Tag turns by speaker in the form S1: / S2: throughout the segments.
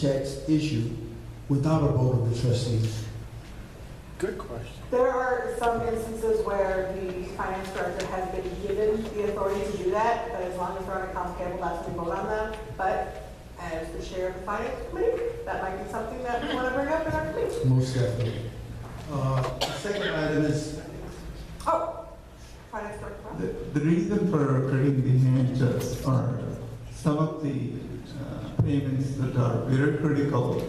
S1: checks issued without a vote of the trustees?
S2: Good question.
S3: There are some instances where the finance director has been given the authority to do that, but as long as we're on accounts payable, that's when we vote on that. But as the chair of the finance committee, that might be something that we want to bring up in our committee.
S1: Most definitely. Uh, the Second item is,
S3: Oh, finance director.
S4: The the reason for creating the hand checks are some of the uh, payments that are very critical,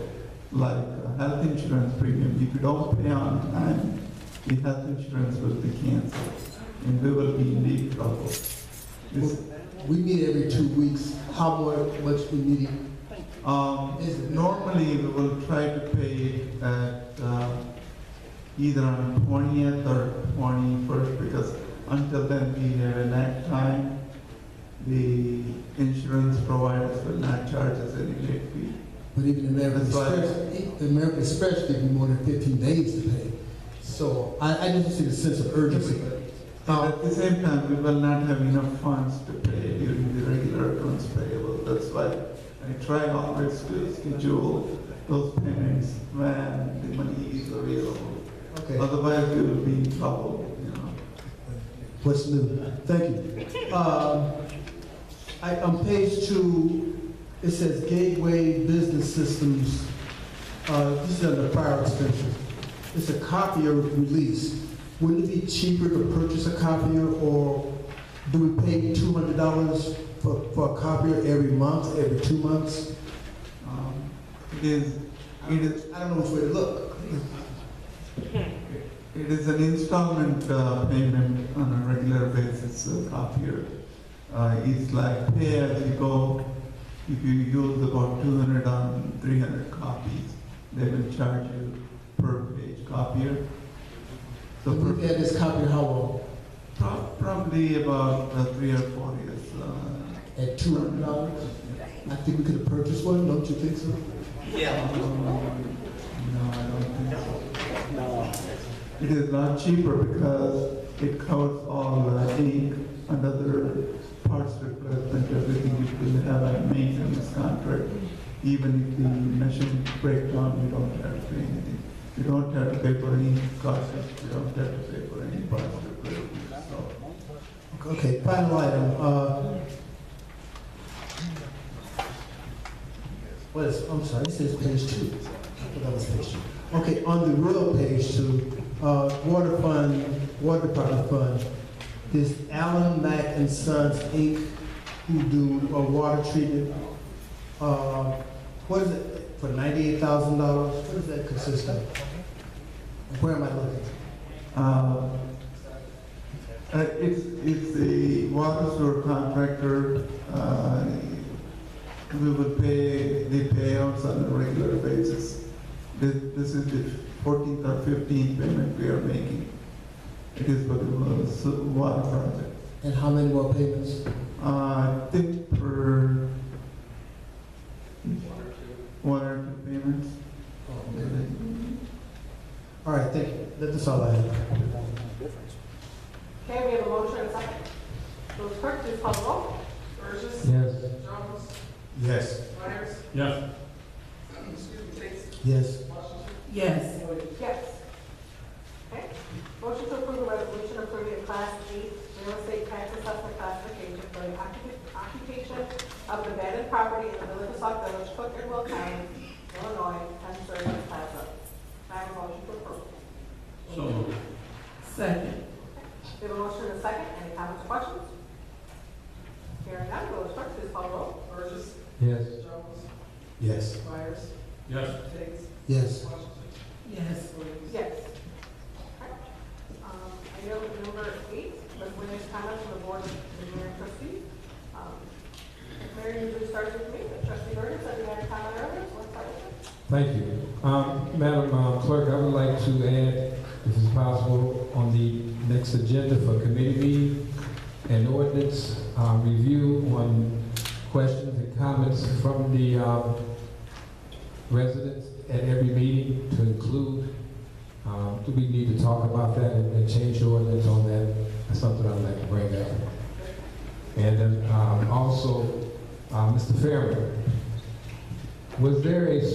S4: like uh, health insurance premium. If you don't pay on time, the health insurance will be canceled, and we will be in deep trouble. This-
S1: we meet every two weeks, how mu- much we need it?
S4: um, Normally, we will try to pay at uh, either on 20th or 21st, because until then, we have a lag time. The insurance providers will not charge us any late fee.
S1: But even American
S4: That's right.
S1: Express, the American Express give you more than fifteen days to pay. So I, I just see the sense of urgency.
S4: And
S1: Uh,
S4: At the same time, we will not have enough funds to pay during the regular accounts payable. That's why I try always to schedule those payments when the money is available.
S1: Okay.
S4: Otherwise, we will be in trouble, you know.
S1: What's new? Thank you. Um, I, on page two, it says Gateway Business Systems. Uh, this is under prior extension. It's a copier release. Wouldn't it be cheaper to purchase a copier or do we pay two hundred dollars for, for a copier every month, every two months?
S4: Um, It is, it is,
S1: I don't know which way to look.
S4: it is an installment uh, payment on a regular basis uh, copier. Uh, It's like pay as you go. If you use about 200 on 300 copies, they will charge you per page copier.
S1: So
S4: So
S1: we
S4: per-
S1: had this copier how long?
S4: pro- probably about uh, three or four years. uh,
S1: At two hundred dollars? I think we could have purchased one, don't you think so?
S4: um, No, I don't think so.
S2: No.
S4: It is not cheaper because it covers all uh, ink and other parts replacement, everything which will have a maintenance contract. Even if the machine breaks down, you don't have to pay anything. You don't have to pay for any cost, you don't have to pay for any parts replacement, so.
S1: Okay, final item, uh. What is, I'm sorry, this is page two. I thought that was page two. Okay, on the real page two, uh, water fund, water department fund, this Allen Mack and Sons Inc. who do uh, water treatment. Uh, what is it, for ninety-eight thousand dollars, what does that consist of? Where am I looking?
S4: Uh, uh, It's, it's the water sewer contractor, uh, we will pay the payouts on a regular basis. This, this is the fourteenth or fifteenth payment we are making. It is for the wa- su- water project.
S1: And how many more payments?
S4: Uh, I think for one or two payments.
S1: Oh, All right, thank you, that's all I have.
S3: Okay, we have a motion and a second. Those clerk, please call the roll.
S5: Burgess.
S1: Yes.
S5: Jones.
S1: Yes.
S5: Myers.
S2: Yes.
S5: Excuse me, Chase.
S1: Yes.
S5: Washington.
S6: Yes.
S5: Williams.
S3: Yes. Okay. Motion to approve the resolution approving a class eight real estate tax assessment classification for the occup- occupation of abandoned property in the village of Sauk Village, Cook and Will County, Illinois, and serving as plaza. I have a motion to approve.
S2: So moved.
S6: Second.
S3: We have a motion and a second. Any comments or questions? Hearing none, village clerk, please call the roll.
S5: Burgess.
S1: Yes.
S5: Jones.
S1: Yes.
S5: Myers.
S2: Yes.
S5: Chase.
S1: Yes.
S5: Washington.
S6: Yes.
S5: Williams.
S3: Yes. Okay. Um, I know number eight, but when there's comments from the board, the mayor and trustee. Um, Mayor usually starts with me, but trustee Burgess, I think I had a comment earlier, so let's start with
S7: Thank you. Um, Madam uh, Clerk, I would like to add, if it's possible, on the next agenda for committee meeting, an ordinance uh, review on questions and comments from the um, residents at every meeting to include. Um, Do we need to talk about that and and change the ordinance on that? That's something I'd like to bring up. And then um, also, uh, Mr. Fairman,
S1: Was there a